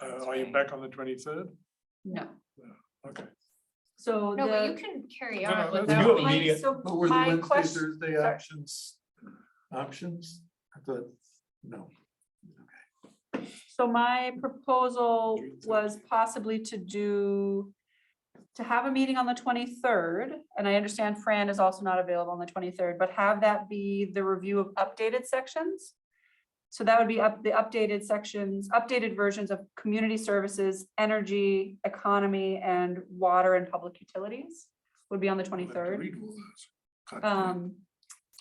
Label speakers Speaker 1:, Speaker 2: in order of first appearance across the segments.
Speaker 1: Uh, are you back on the twenty-third?
Speaker 2: No,
Speaker 1: Okay.
Speaker 2: so
Speaker 3: No, but you
Speaker 2: the,
Speaker 3: can carry
Speaker 1: Um, No, no,
Speaker 3: on
Speaker 1: that's-
Speaker 3: without.
Speaker 1: You have a
Speaker 3: my-
Speaker 1: meeting at-
Speaker 3: so
Speaker 1: But were the
Speaker 3: my
Speaker 1: Wednesday,
Speaker 3: quest-
Speaker 1: Thursday
Speaker 3: sorry.
Speaker 1: actions, options? I thought, no.
Speaker 2: so my proposal was possibly to do, to have a meeting on the twenty-third, and I understand Fran is also not available on the twenty-third, but have that be the review of updated sections. So that would be up, the updated sections, updated versions of community services, energy, economy, and water and public utilities would be on the
Speaker 1: I'll have to
Speaker 2: twenty-third.
Speaker 1: read all those. God,
Speaker 2: Um,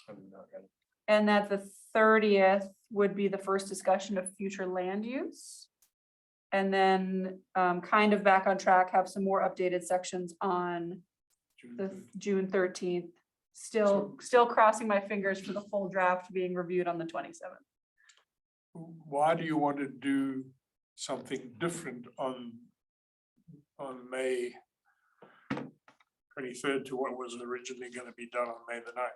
Speaker 1: I'm not gonna-
Speaker 2: And that the thirtieth would be the first discussion of future land use. And then um, kind of back on track, have some more updated sections on
Speaker 1: June
Speaker 2: the
Speaker 1: third.
Speaker 2: June thirteenth. Still, still crossing my fingers for the full draft being reviewed on the twenty-seventh.
Speaker 1: Why do you want to do something different on, on May twenty-third to what was originally gonna be done on May the ninth?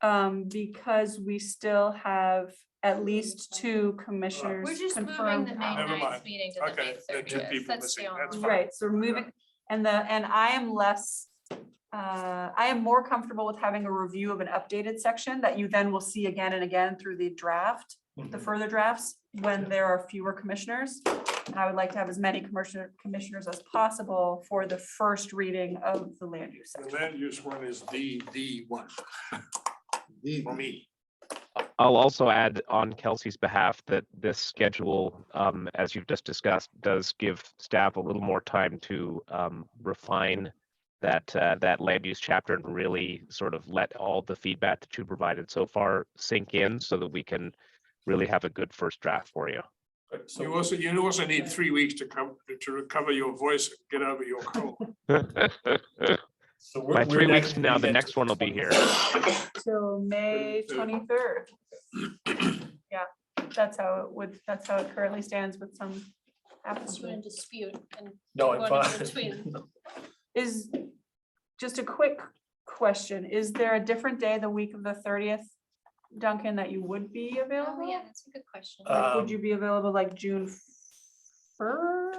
Speaker 2: Um, Because we still have at least two commissioners
Speaker 3: We're just moving
Speaker 2: confirmed.
Speaker 3: the May
Speaker 2: out.
Speaker 1: Never mind.
Speaker 3: ninth meeting to the
Speaker 1: Okay,
Speaker 3: May
Speaker 1: there are two
Speaker 3: thirtieth.
Speaker 1: people
Speaker 3: That's
Speaker 1: missing.
Speaker 3: the
Speaker 1: That's
Speaker 3: only.
Speaker 1: fine.
Speaker 2: Right, so we're moving, and the, and I am less, uh, I am more comfortable with having a review of an updated section that you then will see again and again through the draft, the further drafts, when there are fewer commissioners. And I would like to have as many commissioner, commissioners as possible for the first reading of the land use
Speaker 1: The
Speaker 2: section.
Speaker 1: land use one is the, the one for me.
Speaker 4: I'll also add on Kelsey's behalf that this schedule, um, as you've just discussed, does give staff a little more time to um, refine that uh, that land use chapter and really sort of let all the feedback that you provided so far sink in, so that we can really have a good first draft for you.
Speaker 1: You also, you also need three weeks to come, to recover your voice, and get over your cold.
Speaker 5: So we're-
Speaker 4: By
Speaker 5: we're
Speaker 4: three
Speaker 5: not
Speaker 4: weeks
Speaker 5: gonna
Speaker 4: from now,
Speaker 5: do
Speaker 4: the
Speaker 5: that
Speaker 4: next
Speaker 5: till
Speaker 4: one will be here.
Speaker 5: 26th.
Speaker 2: So May
Speaker 1: Thirty-third.
Speaker 2: twenty-third. Yeah, that's how it would, that's how it currently stands with some
Speaker 3: Just
Speaker 2: applicants.
Speaker 3: want to dispute and
Speaker 5: No,
Speaker 3: One
Speaker 5: I'm
Speaker 3: in between.
Speaker 5: fine.
Speaker 2: Is, just a quick question, is there a different day the week of the thirtieth, Duncan, that you would be
Speaker 3: Oh,
Speaker 2: available?
Speaker 3: yeah, that's a good question.
Speaker 5: Uh,
Speaker 2: Like,
Speaker 5: Um,
Speaker 2: Would you be available like June first?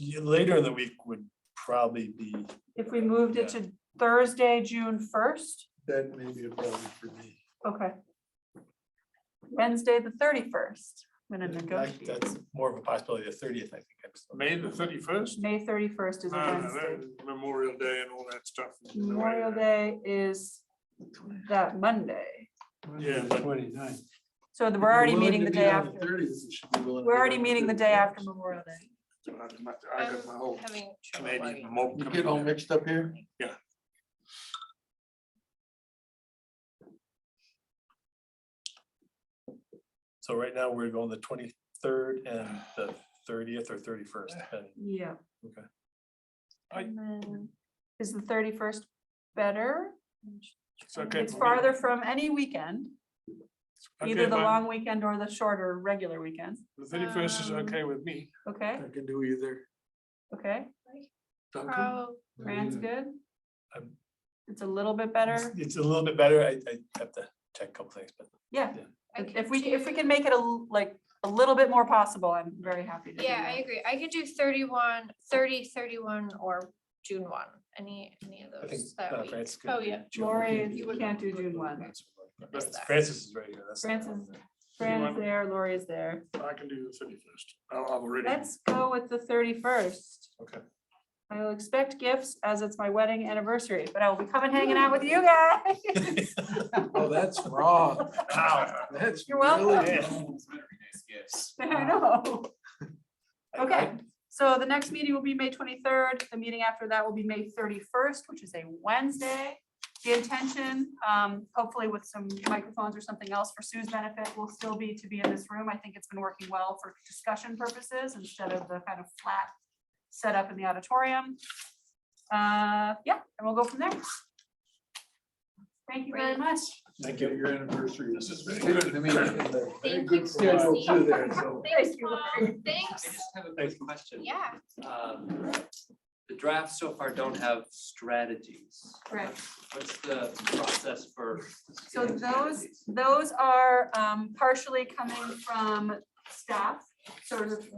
Speaker 5: Yeah, Later in the week would probably be,
Speaker 2: If we moved it to Thursday, June first,
Speaker 1: That may be a problem for me.
Speaker 2: okay. Wednesday, the thirty-first, I'm gonna
Speaker 5: that-
Speaker 2: negotiate,
Speaker 5: that's more of a possibility, the thirtieth, I think. I'm still-
Speaker 1: May the thirty-first?
Speaker 2: May thirty-first is a Wednesday.
Speaker 1: Memorial Day and all that stuff. is in the way.
Speaker 2: Memorial Day is that Monday,
Speaker 1: Yeah, but
Speaker 6: Twenty-nine.
Speaker 2: so we're already meeting the day after,
Speaker 6: We're
Speaker 2: we're already meeting the day after Memorial Day.
Speaker 1: I got my- I got my whole
Speaker 3: I'm having trouble
Speaker 1: Canadian
Speaker 3: logging.
Speaker 1: mob
Speaker 6: You
Speaker 1: coming
Speaker 6: get all
Speaker 1: in.
Speaker 6: mixed up here?
Speaker 5: So right now, we're going the twenty-third and the thirtieth or thirty-first.
Speaker 2: Yeah.
Speaker 5: Okay.
Speaker 1: I-
Speaker 2: And then, is the thirty-first better?
Speaker 1: It's okay
Speaker 2: It's
Speaker 1: for me.
Speaker 2: farther from any weekend, either
Speaker 1: Okay,
Speaker 2: the
Speaker 1: fine.
Speaker 2: long weekend or the shorter, regular weekend,
Speaker 1: The thirty-first is
Speaker 3: Um,
Speaker 1: okay with me.
Speaker 2: okay,
Speaker 6: can do either.
Speaker 2: okay,
Speaker 3: Pro-
Speaker 1: Duncan,
Speaker 6: Mm-hmm.
Speaker 2: Fran's good?
Speaker 5: I'm-
Speaker 2: It's a little bit better,
Speaker 5: It's a little bit better. I, I have to check a couple things, but
Speaker 2: yeah,
Speaker 3: I
Speaker 2: if
Speaker 3: could
Speaker 2: if we, if we
Speaker 3: do-
Speaker 2: can make it a, l- like, a little bit more possible, I'm very happy to do
Speaker 3: Yeah, I
Speaker 2: that.
Speaker 3: agree. I could do 31, 30, 31, or June one, any, any of
Speaker 5: I think.
Speaker 3: those
Speaker 5: uh,
Speaker 3: that week.
Speaker 5: Francis could
Speaker 3: Oh,
Speaker 5: do
Speaker 3: yeah.
Speaker 5: June.
Speaker 2: Lori,
Speaker 5: You
Speaker 2: you
Speaker 5: would-
Speaker 2: can't do June one.
Speaker 3: Miss
Speaker 5: That's-
Speaker 3: that.
Speaker 5: Francis is right here. that's-
Speaker 2: Francis.
Speaker 1: Anyone?
Speaker 2: Fran's there, Lori is there,
Speaker 1: I can do the thirty-first. I've already.
Speaker 2: let's go with the thirty-first.
Speaker 5: Okay.
Speaker 2: I will expect gifts as it's my wedding anniversary, but I will be coming hanging out with you guys.
Speaker 6: Oh, that's wrong.
Speaker 5: Ow.
Speaker 6: That's
Speaker 2: You're welcome.
Speaker 6: really
Speaker 2: I know.
Speaker 5: I- I-
Speaker 2: Okay, so the next meeting will be May twenty-third. The meeting after that will be May thirty-first, which is a Wednesday. The intention, um, hopefully with some microphones or something else for Sue's benefit, will still be to be in this room. I think it's been working well for discussion purposes instead of the kind of flat setup in the auditorium. Uh, yeah, and we'll go from there. Thank you very
Speaker 3: Great.
Speaker 2: much.
Speaker 6: Thank you. Your anniversary.
Speaker 1: This is very
Speaker 6: Good,
Speaker 1: good.
Speaker 6: I mean, it's a very
Speaker 3: Thank
Speaker 6: good
Speaker 3: you,
Speaker 6: schedule
Speaker 3: Casey.
Speaker 6: too there, so.
Speaker 3: Thanks,
Speaker 2: Thank you.
Speaker 3: Mom.
Speaker 7: I
Speaker 3: Thanks.
Speaker 7: just have a quick question.
Speaker 3: Yeah,
Speaker 7: Um, The drafts so far don't have strategies.
Speaker 2: Correct.
Speaker 7: What's the process for?
Speaker 2: So
Speaker 7: getting
Speaker 2: those,
Speaker 7: strategies?
Speaker 2: those are um partially coming from staff, sort of